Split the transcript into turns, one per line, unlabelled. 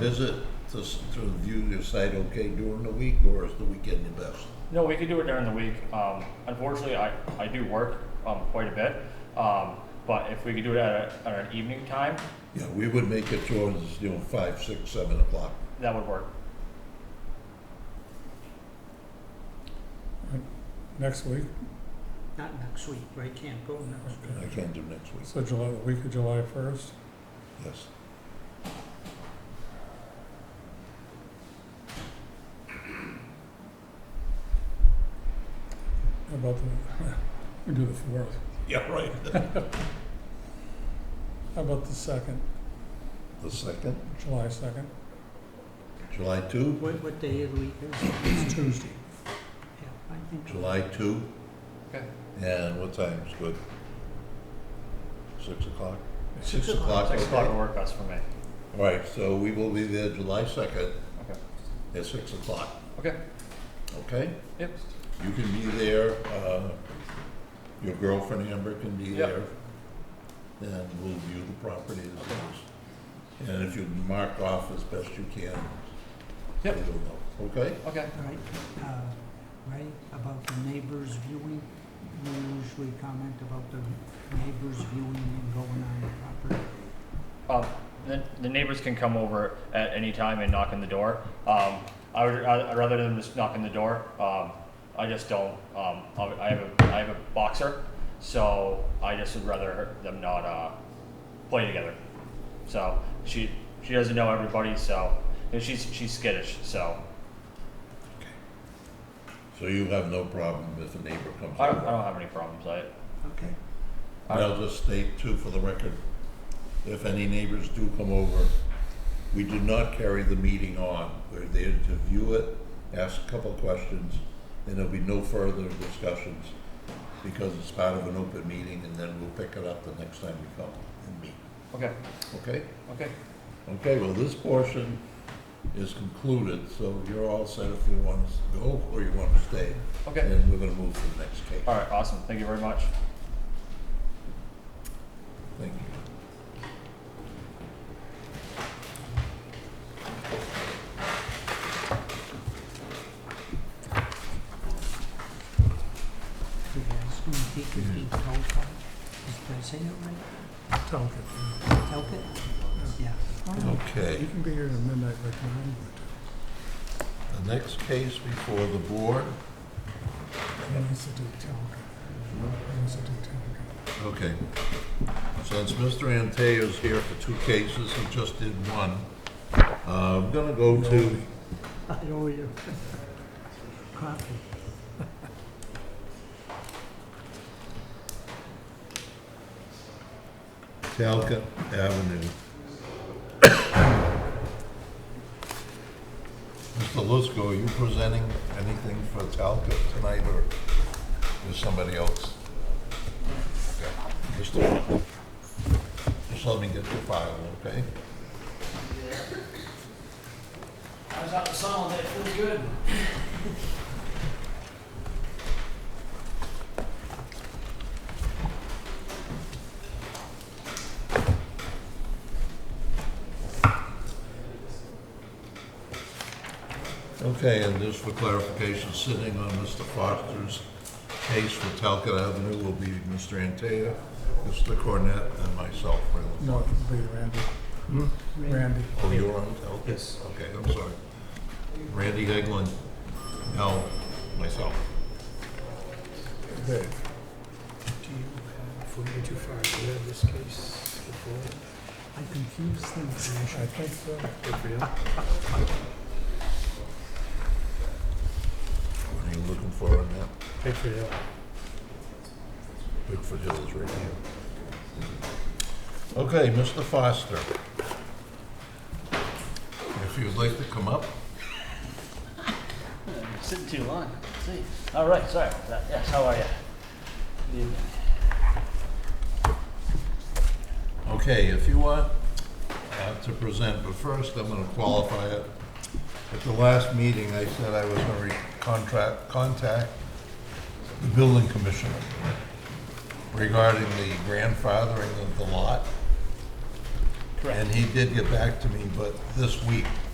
visit to, s- to view your site okay during the week, or is the weekend the best?
No, we could do it during the week. Um, unfortunately, I, I do work um, quite a bit. Um, but if we could do it at, a, at an evening time,
Yeah, we would make it towards, you know, five, six, seven o'clock.
that would work.
next week,
Not next week, right? Can't go next week.
I can do next week,
so July, the week of July first.
yes.
How about the, we do the fourth.
Yeah, right.
How about the second,
The second,
July second?
July two,
What, what day of the week is it?
It's Tuesday.
Yeah, I think
July two,
Okay.
and what time's good? Six o'clock? Six
o'clock.
o'clock,
Six o'clock would
okay.
work best for me.
All right, so we will be there July second
Okay.
at six o'clock,
Okay.
okay?
Yep.
You can be there, uh, your girlfriend Amber can be
Yep.
there. And we'll view the property as it is. And if you mark off as best you can.
Yep.
it'll know, Okay?
Okay.
All right, uh, right, about the neighbors viewing, you usually comment about the neighbors viewing and going on the property.
Um, the, the neighbors can come over at any time and knock on the door. Um, I would I, rather than just knocking the door. Um, I just don't. Um, I, I have a I have a boxer, so I just would rather them not uh, play together. So she she doesn't know everybody, so and she's she's skittish. So
So you have no problem if a neighbor comes
I don't, I
over.
don't have any problems. I
Okay.
And I'll just state too for the record, if any neighbors do come over, we do not carry the meeting on. We're there to view it, ask a couple of questions, and there'll be no further discussions because it's part of an open meeting and then we'll pick it up the next time we come and meet,
okay
okay?
okay
Okay, well, this portion is concluded, so you're all set if you want us to go or you want to stay.
okay.
And we're gonna move to the next case.
All right, awesome. Thank you very much.
Thank you.
You guys gonna take fifteen Talcott? Did I say that
Talk
right? Talcott? Yeah.
Okay.
You can be here at midnight like mine,
The next case before the board,
but I used to do Talcott. I used to do Talcott.
okay. Since Mr. Anteo's here for two cases, he just did one, uh, I'm gonna go to,
I owe you. Coffee.
Talca Avenue. Mr. Lusko, are you presenting anything for Talca tonight, or is somebody else? Okay, Mr. Just let me get your file, okay?
I was out in the sun all day. It feels good.
Okay, and just for clarification, sitting on Mr. Foster's case for Talcott Avenue will be Mr. Antaya, Mr. Cornett, and myself, Raylan.
No, it could be Randy. Randy.
Oh, you're on Talcott?
Yes.
Okay, I'm sorry. Randy Eglin, no, myself.
Dave.
Do you have 425? Do you have this case before?
I confuse things.
I think so.
Good for you.
What are you looking for on that?
Good for you.
Bigfoot Hill is right here. Okay, Mr. Foster. If you'd like to come up,
Sitting too long. Let's see. All right. Sorry about that. Yes. How are you? Good evening.
Okay, if you want uh, to present, but first I'm going to qualify it. At the last meeting, I said I was going to contract, contact the building commissioner regarding the grandfathering of the lot. And he did get back to me, but this week,